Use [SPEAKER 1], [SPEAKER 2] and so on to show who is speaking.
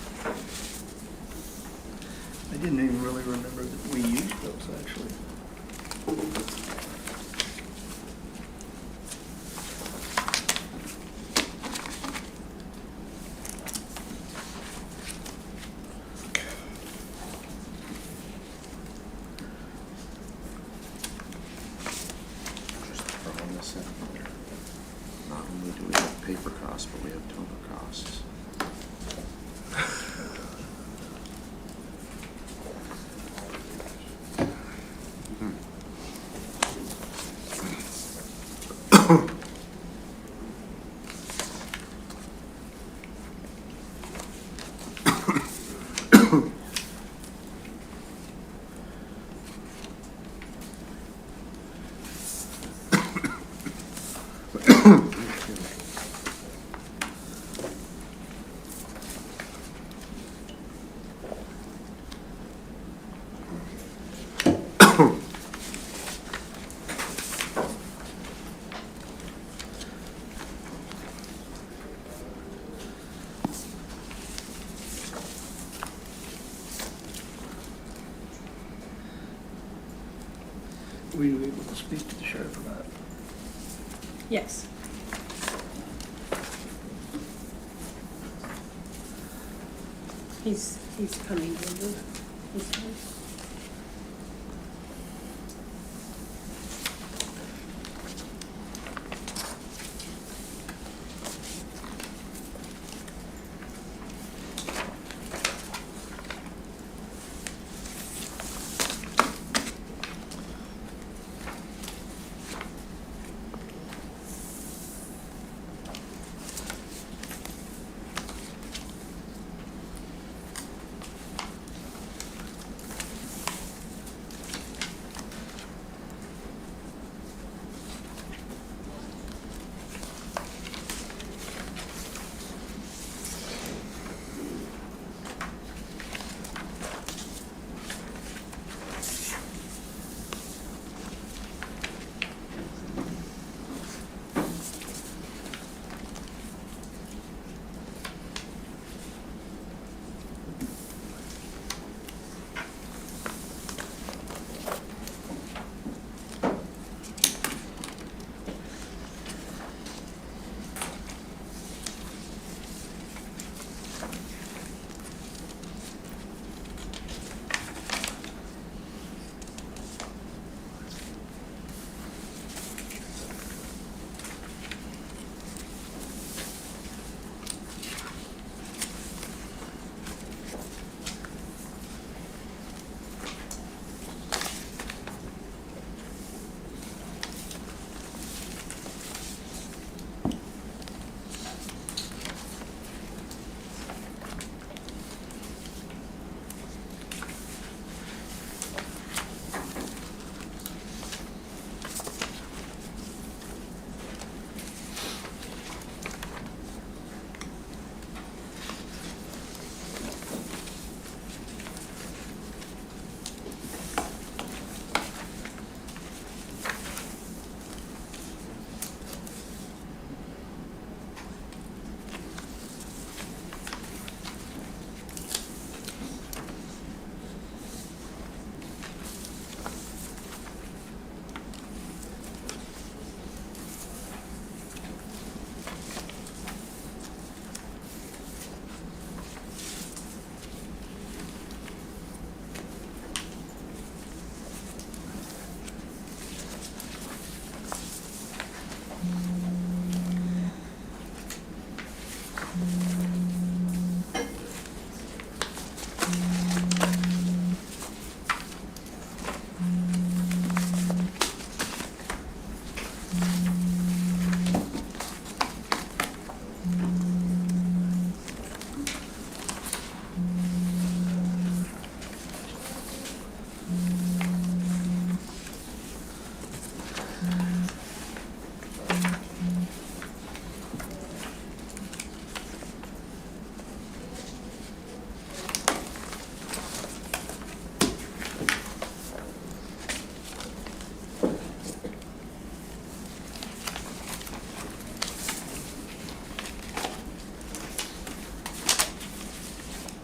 [SPEAKER 1] I didn't even really remember that we used those, actually.
[SPEAKER 2] Just throwing this in there. Not only do we have paper costs, but we have toner costs.
[SPEAKER 1] Were you able to speak to the sheriff about it?
[SPEAKER 3] Yes. He's, he's coming over. He's-